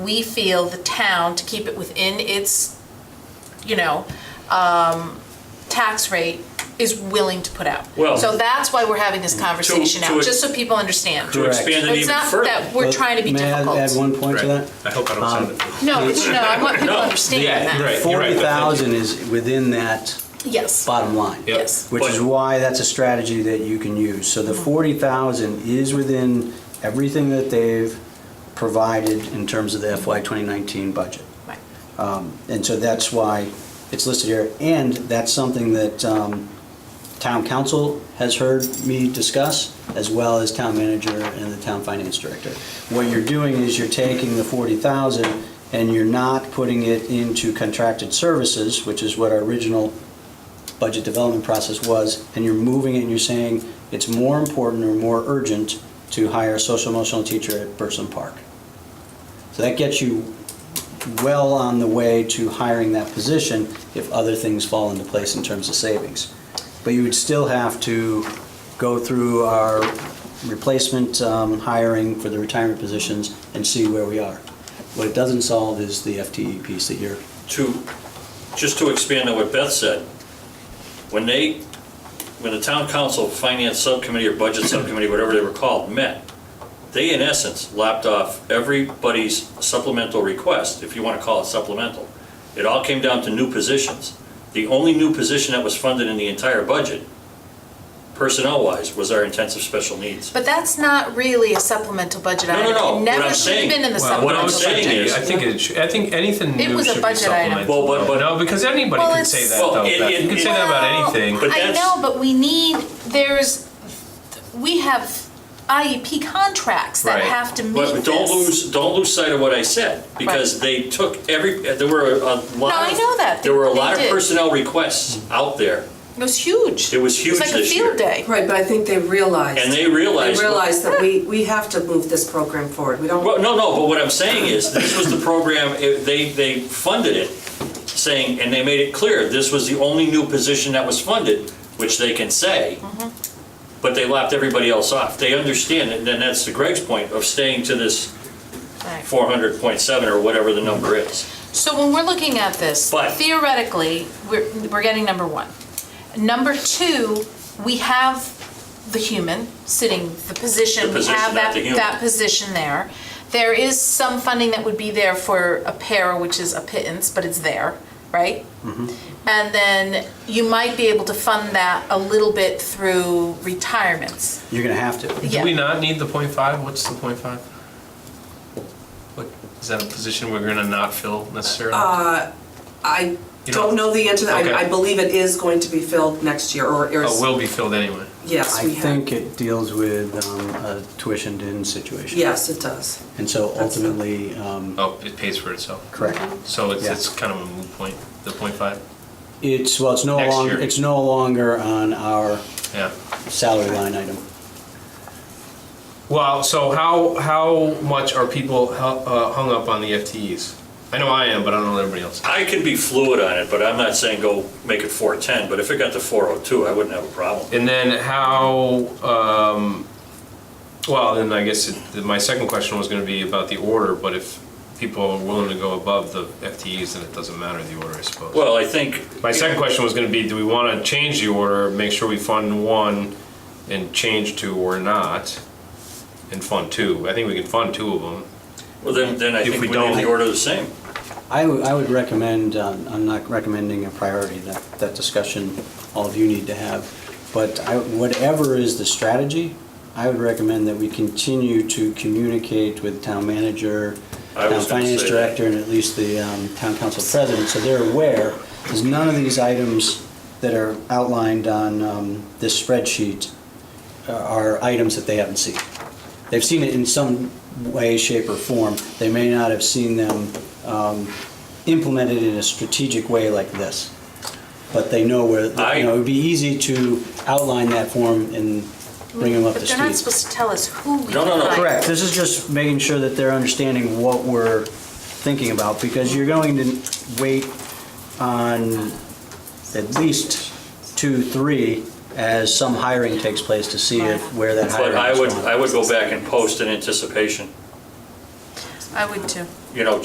we feel the town, to keep it within its, you know, um, tax rate, is willing to put out. Well- So that's why we're having this conversation now, to- just so people understand. To But expand it It's even not further. that we're trying to be May I add difficult. one point to Right. that? Um, I hope I don't sound it. No, it's, no, I want people to No. understand Yeah, that. right. you're Forty but thank thousand is within that Yes, bottom line. Yep. Yes. Which is But- why that's a strategy that you can use. So Mm-hmm. the forty thousand is within everything that they've provided in terms of the FY twenty nineteen budget. Right. Um, And so that's why it's listed here. And that's something that um, town council has heard me discuss, as well as town manager and the town finance director. What you're doing is you're taking the 40,000 and you're not putting it into contracted services, which is what our original budget development process was, and you're moving it and you're saying it's more important or more urgent to hire a social emotional teacher at Burson Park. So that gets you well on the way to hiring that position if other things fall into place in terms of savings. But you would still have to go through our replacement um, hiring for the retirement positions and see where we are. What it doesn't solve is the FTE piece that you're, to, just to expand on what Beth said, when they, when the town council, finance subcommittee or budget subcommittee, whatever they were called, met, they in essence lapped off everybody's supplemental request, if you want to call it supplemental. It all came down to new positions. The only new position that was funded in the entire budget, personnel-wise, was our intensive special needs. but that's not really a supplemental budget No, no, item. no. It What I'm never should have saying- been in the Well, what supplemental I'm budget. saying is- saying, I think it, should- I think anything It new was a should be budget item. supplemental. Well, but- but- No, because anybody Well, can it's- say that Well, though, it- Beth. You it- can say Well, that about anything. But I that's- know, but we need, there's, we have IEP contracts that Right. have to meet this. But don't lose, don't lose sight of what I said, because they took every, there were a lot of. I know that. There were a They lot of did. personnel requests out there. It was huge. It was huge It was like a this field year. day. Right, but I think they realized. And they realized- They realized that we, we have to move this program forward. We don't. Well, no, no, but what I'm saying is, this was the program, it- they, they funded it, saying, and they made it clear, this was the only new position that was funded, which they can say, Mm-hmm. but they lapped everybody else off. They understand, and then that's to Greg's point of staying to this Right. 400.7 or whatever the number is. So when we're looking at this, But- theoretically, we're, we're getting number one. Number two, we have the human sitting, the position, The we position, have not that, the human. that position there. There is some funding that would be there for a pair, which is a pittance, but it's there, right? Mm-hmm. And then you might be able to fund that a little bit through retirements. you're going to have to. Yeah. Do we not need the point five? What's the point five? What, is that a position we're gonna not fill necessarily? Uh, I You don't know the answer. to that. Okay. I, I believe it is going to be filled next year or, or. Or Oh, will Oh, be filled anyway? Yes, I we have. think it deals with um, a tuitioned-in situation. Yes, it does. And so That's- Mm-hmm. ultimately, um, Oh, it pays for itself. correct. So it's, Yeah. it's kind of a moot point, the point five, It's, well, it's no Next longer, year. it's no longer on our yeah. salary line item. Well, so how, how much are people hu- uh, hung up on the FTEs? I know I am, but I don't know everybody else. I can be fluid on it, but I'm not saying go make it 410, but if it got to 402, I wouldn't have a problem. And then how, um, well, then I guess it- my second question was gonna be about the order, but if people are willing to go above the FTEs, then it doesn't matter the order, I suppose. Well, I think. My second question was gonna be, do we wanna change the order, make sure we fund one and change two or not? And fund two, I think we can fund two of them. Well, then, then I If think we we need the don't- order the same. I would, I would recommend, um, I'm not recommending a priority, that, that discussion all of you need to have. But I, whatever is the strategy, I would recommend that we continue to communicate with town manager, I town was gonna finance say that. director, and at least the um, town council president, so they're aware, because none of these items that are outlined on um, this spreadsheet uh, are items that they haven't seen. They've seen it in some way, shape, or form. They may not have seen them um, implemented in a strategic way like this, but they know where, I- you know, it would be easy to outline that form and bring them up to But they're not speed. supposed to tell us who we No, no, no. hire. Correct, this is just making sure that they're understanding what we're thinking about, because you're going to wait on at least two, three, as some hiring takes place to see if, where that But hiring is I going. would, I would go back and post in anticipation. I would too. you know,